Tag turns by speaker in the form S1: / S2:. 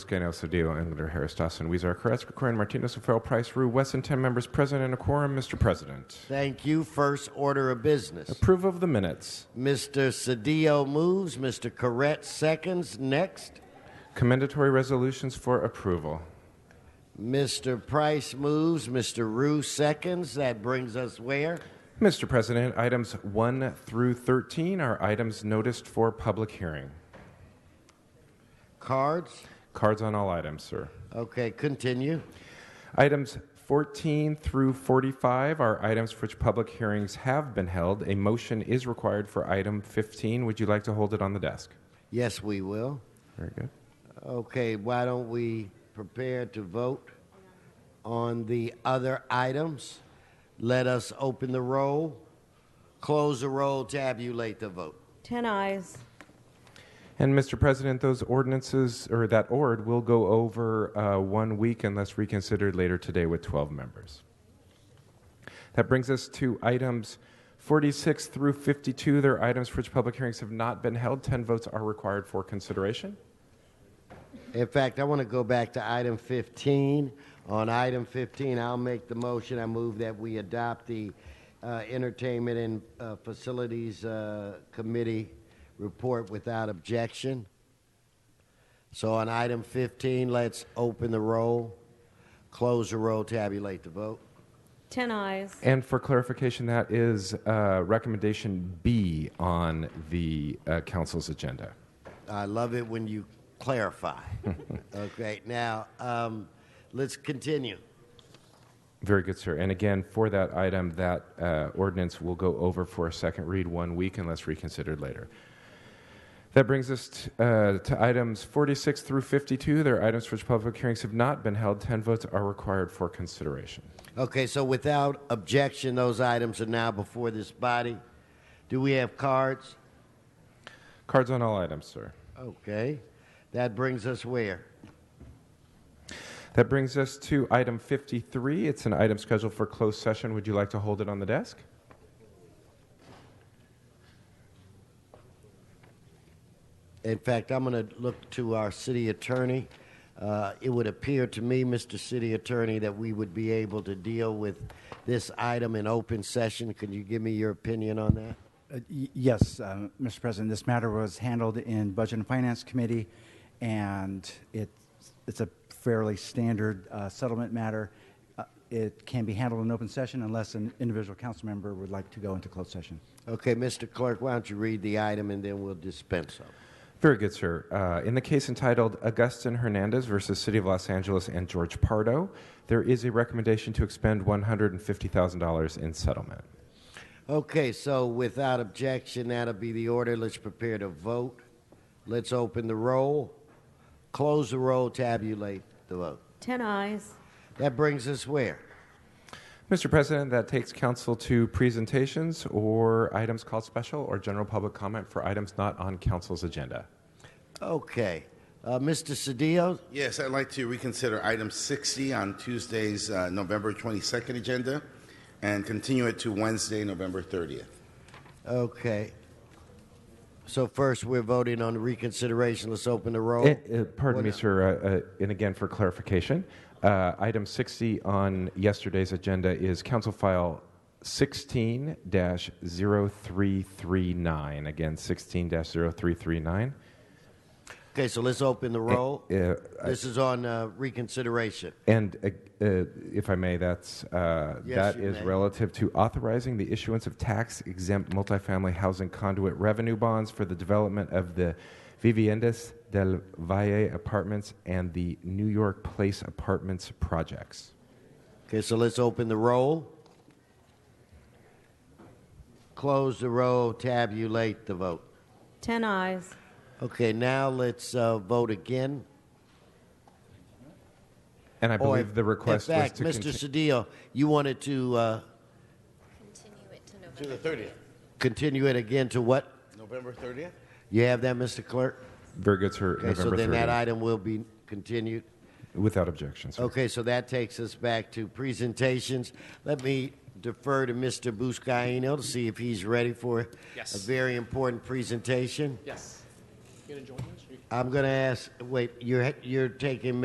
S1: Gano, Cedillo, Engler, Harris, Dawson, Weezer, Carrasco, Corin, Martinez, O'Farrell, Price, Rue, Wesson, 10 members present and a quorum. Mr. President,
S2: Thank you. First order of business.
S1: approve of the minutes.
S2: Mr. Cedillo moves. Mr. Corrett seconds. Next.
S1: Commendatory resolutions for approval.
S2: Mr. Price moves. Mr. Rue seconds. That brings us where?
S1: Mr. President, items 1 through 13 are items noticed for public hearing.
S2: Cards.
S1: Cards on all items, sir.
S2: Okay, continue.
S1: Items 14 through 45 are items for which public hearings have been held. A motion is required for item 15. Would you like to hold it on the desk?
S2: Yes, we will.
S1: Very good.
S2: Okay, why don't we prepare to vote on the other items? Let us open the roll, close the roll, tabulate the vote.
S3: 10 eyes.
S1: And Mr. President, those ordinances or that ord will go over uh, one week unless reconsidered later today with 12 members. That brings us to items 46 through 52. They're items for which public hearings have not been held. 10 votes are required for consideration.
S2: In fact, I want to go back to item 15. On item 15, I'll make the motion. I move that we adopt the uh, Entertainment and uh, Facilities uh, Committee report without objection. So on item 15, let's open the roll, close the roll, tabulate the vote.
S3: 10 eyes.
S1: And for clarification, that is uh, recommendation B on the uh, council's agenda.
S2: I love it when you clarify. okay, now um, let's continue.
S1: Very good, sir. And again, for that item, that uh, ordinance will go over for a second read one week unless reconsidered later. That brings us t- uh, to items 46 through 52. They're items for which public hearings have not been held. 10 votes are required for consideration.
S2: Okay, so without objection, those items are now before this body. Do we have cards?
S1: Cards on all items, sir.
S2: Okay, that brings us where?
S1: That brings us to item 53. It's an item scheduled for closed session. Would you like to hold it on the desk?
S2: In fact, I'm going to look to our city attorney. Uh, it would appear to me, Mr. City Attorney, that we would be able to deal with this item in open session. Could you give me your opinion on that?
S4: Uh, y- Yes, uh, Mr. President, this matter was handled in Budget and Finance Committee, and it's it's a fairly standard uh, settlement matter. Uh, It can be handled in open session unless an individual council member would like to go into closed session.
S2: Okay, Mr. Clerk, why don't you read the item and then we'll dispense of it.
S1: Very good, sir. Uh, in the case entitled Augustin Hernandez versus City of Los Angeles and George Pardo, there is a recommendation to expend $150,000 in settlement.
S2: Okay, so without objection, that'll be the order. Let's prepare to vote. Let's open the roll, close the roll, tabulate the vote.
S3: 10 eyes.
S2: That brings us where?
S1: Mr. President, that takes council to presentations or items called special or general public comment for items not on council's agenda.
S2: Okay, uh, Mr. Cedillo,
S5: Yes, I'd like to reconsider item 60 on Tuesday's uh, November 22nd agenda and continue it to Wednesday, November 30th.
S2: okay. So first, we're voting on reconsideration. Let's open the roll.
S1: Eh, eh, pardon me, sir. Uh, uh, and again, for clarification, uh, item 60 on yesterday's agenda is Council File 16 0339. Again, 16 0339.
S2: Okay, so let's open the roll.
S1: eh,
S2: This is on uh, reconsideration.
S1: And uh, uh, if I may, that's, uh,
S2: Yes,
S1: that
S2: you
S1: is
S2: may.
S1: relative to authorizing the issuance of tax exempt multifamily housing conduit revenue bonds for the development of the Viviendas del Valle apartments and the New York Place apartments projects.
S2: Okay, so let's open the roll. Close the roll, tabulate the vote.
S3: 10 eyes.
S2: Okay, now let's uh, vote again.
S1: And I
S2: Or
S1: believe
S2: if-
S1: the request
S2: in fact,
S1: was to
S2: Mr.
S1: conti-
S2: Cedillo, you wanted to uh,
S5: To the 30th?
S2: continue it again to what?
S5: November 30th?
S2: You have that, Mr. Clerk?
S1: Very good, sir.
S2: Okay, so
S1: November
S2: then that
S1: 30th.
S2: item will be continued.
S1: Without objection, sir.
S2: Okay, so that takes us back to presentations. Let me defer to Mr. Buscaino to see if he's ready for
S6: Yes.
S2: a very important presentation.
S6: Yes. You gonna join us? Are you-
S2: I'm going to ask, wait, you're, you're taking